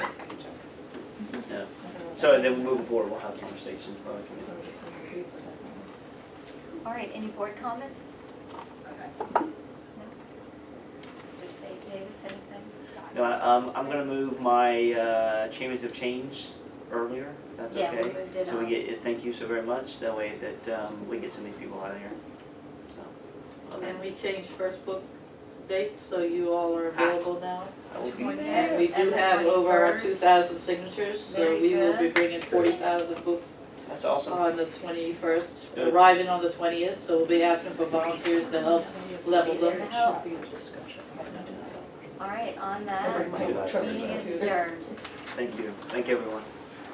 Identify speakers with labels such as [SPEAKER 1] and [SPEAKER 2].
[SPEAKER 1] So then we move forward, we'll have conversations about it.
[SPEAKER 2] All right, any board comments? No. Mr. Sa- Davis, anything?
[SPEAKER 1] No, I- um, I'm gonna move my, uh, Champions of Change earlier, if that's
[SPEAKER 2] Yeah,
[SPEAKER 1] okay.
[SPEAKER 2] we moved it
[SPEAKER 1] So we
[SPEAKER 2] up.
[SPEAKER 1] get, thank you so very much, that way that, um, we get some of these people out of here, so. okay.
[SPEAKER 3] And we changed first book dates, so you all are available now.
[SPEAKER 1] I will be
[SPEAKER 2] Twenty.
[SPEAKER 3] And we
[SPEAKER 2] And
[SPEAKER 3] do
[SPEAKER 2] the
[SPEAKER 3] have over
[SPEAKER 2] 21st.
[SPEAKER 3] two thousand signatures, so
[SPEAKER 2] Very
[SPEAKER 3] we will be
[SPEAKER 2] good.
[SPEAKER 3] bringing forty thousand books
[SPEAKER 1] That's awesome.
[SPEAKER 3] on the twenty-first,
[SPEAKER 1] Good.
[SPEAKER 3] arriving on the twentieth, so we'll be asking for volunteers to help level
[SPEAKER 2] Volunteers to
[SPEAKER 3] them.
[SPEAKER 2] help. All right, on that,
[SPEAKER 1] Right.
[SPEAKER 2] meeting is adjourned.
[SPEAKER 1] Thank you. Thank everyone.